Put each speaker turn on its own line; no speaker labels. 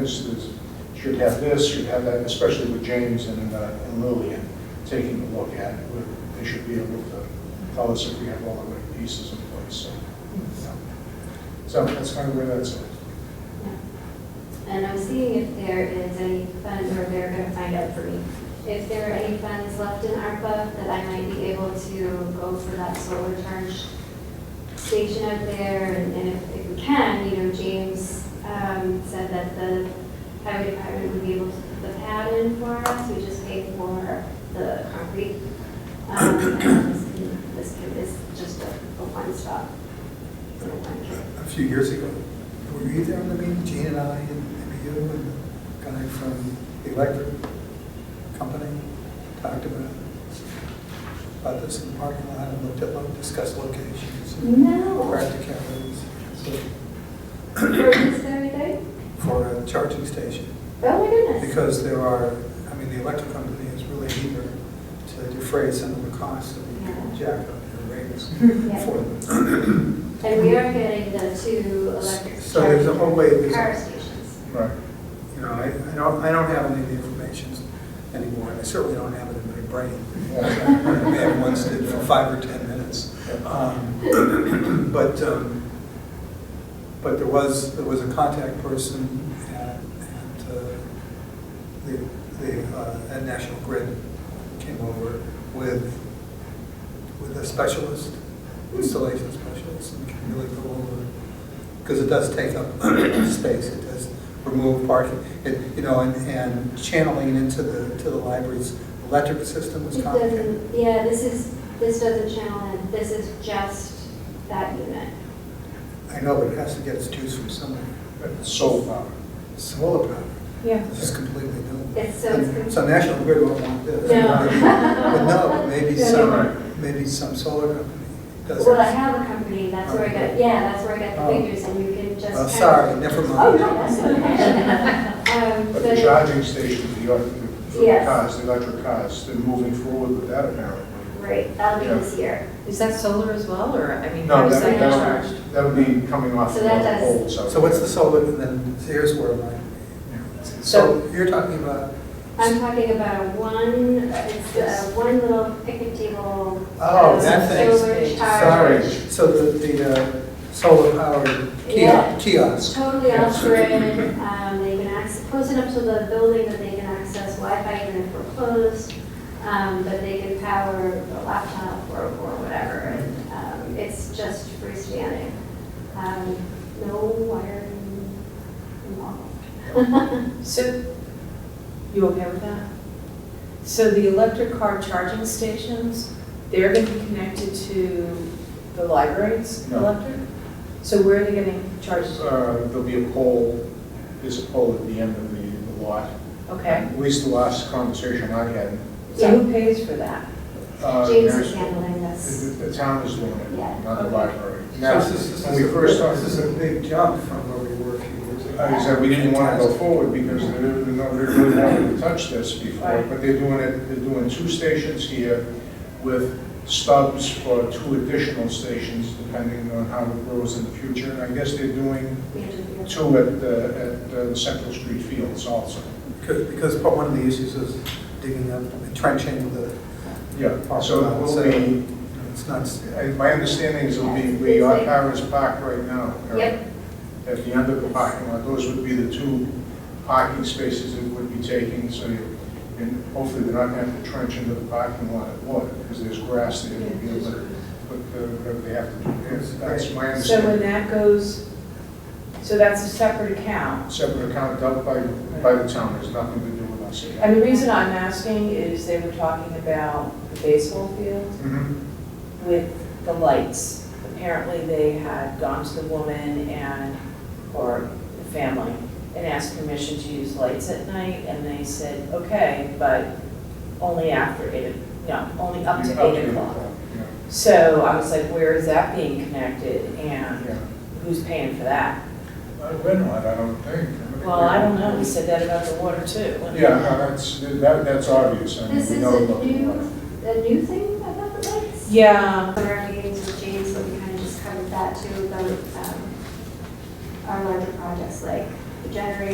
this is, should have this, should have that, especially with James and uh, and Lillian taking a look at it. They should be able to tell us if we have all the right pieces in place, so. yeah. So that's kind of where that's at.
And I'm seeing if there is any funds, or they're gonna find out for me, if there are any funds left in ARPA that I might be able to go for that solar charge station up there, and and if, if we can, you know, James, um, said that the highway department would be able to put the pad in for us, we just paid for the concrete. Um, and this can- this can- is just a, a one-stop, little one stop.
A few years ago, were you there on the meeting, Gene and I, and maybe you, and the guy from the electric company talked about, about this in the parking lot, and looked at, lo- discussed locations and
No,
practicalities so,
for this very day?
for a charging station.
Oh my goodness.
Because there are, I mean, the electric company is really eager to defray some of the costs of the jack up their rates
Yeah.
for them.
And we are getting the two electric.
So there's a whole way-
charging Power stations.
Right.
You know, I, I don't, I don't have any of the information anymore, and I certainly don't have it in my brain. I may have once did for five or 10 minutes. Um, But, um, but there was, there was a contact person at, at uh, the, the, uh, at National Grid came over with, with a specialist, installation specialist, and can really go over, because it does take up space, it does remove parking, it, you know, and, and channeling into the, to the library's electric system is
It
complicated.
doesn't, yeah, this is, this doesn't channel in, this is just that unit.
I know, but it has to get its juice from somewhere.
Soul power.
Solar power,
Yeah.
this is completely new.
It's so, it's
And
com-
So National Grid won't want this.
No.
But no, maybe
No,
some, maybe some solar company does
well, I
it.
have a company, that's where I got, yeah, that's where I got the
Oh.
figures and you can just.
Well,
kind of-
sorry, never
Oh, no,
mind.
that's okay. Um,
But the charging station, for the elec- for the
Yes.
cars, the electric cars, they're moving forward with that apparently.
Right, that'll be
Yeah.
this year.
Is that solar as well, or, I mean, how
No,
is
that
that
would, that
charged?
would, that would be coming off
So
the
that does-
poles.
So what's the solar, and then here's where my, so you're talking about,
I'm talking about a one, it's a one little picnic table.
Oh,
um,
that thing.
Solar
Sorry.
charge.
so the, the uh, solar powered
Yeah.
kiosk- kiosk.
Totally off grid, um, they can access, close enough to the building that they can access Wi-Fi even if we're closed. Um, but they can power a laptop or, or whatever, and, um, it's just freestanding. Um, no wiring involved.
So, you okay with that? So the electric car charging stations, they're going to be connected to the library's
No.
electric? So where are they getting charged?
Uh, There'll be a pole, there's a pole at the end of the the lot.
Okay,
At least the last conversation I had.
so who pays for that?
uh,
James
there's-
is handling this.
The the town is doing it,
Yeah.
not the
Okay.
library. Now,
Now, this is,
when we first started.
this is a big jump from where we were a few years ago.
I said, we didn't want to go forward because they didn't know they really wanted to touch this before,
Right.
but they're doing it, they're doing two stations here with stubs for two additional stations depending on how it grows in the future. And I guess they're doing
We have to do it.
two at, uh, at uh, Central Street Fields also.
Because, because part- one of the issues is digging up, trenching the,
Yeah, so it will be,
it's not,
I- my understanding is it'll be where our car is parked right now. Eric.
Yep,
At the end of the parking lot, those would be the two parking spaces it would be taking, so you, and hopefully they're not gonna have to trench into the parking lot at all, because there's grass there, you'll be able to put uh, whatever they have to do there, that's my
So when
understanding.
that goes, so that's a separate account?
Separate account done by, by the town, there's nothing to do with us.
And the reason I'm asking is they were talking about the baseball field
Mhm.
with the lights. Apparently, they had gone to the woman and, or the family, and asked permission to use lights at night, and they said, okay, but only after eight, o- no, only up to eight o'clock. So I was like, where is that being connected,
Yeah,
and
yeah.
who's paying for that?
Uh, we're not, I don't think.
Well, I don't know, he said that about the water too.
Yeah, uh, no, that's, that, that's obvious, I mean,
this
we
is
know
a
about the
new,
water.
a new thing about the lights?
Yeah,
Some of our meetings with James, but we kind of just covered that too, about um, our larger projects like the generator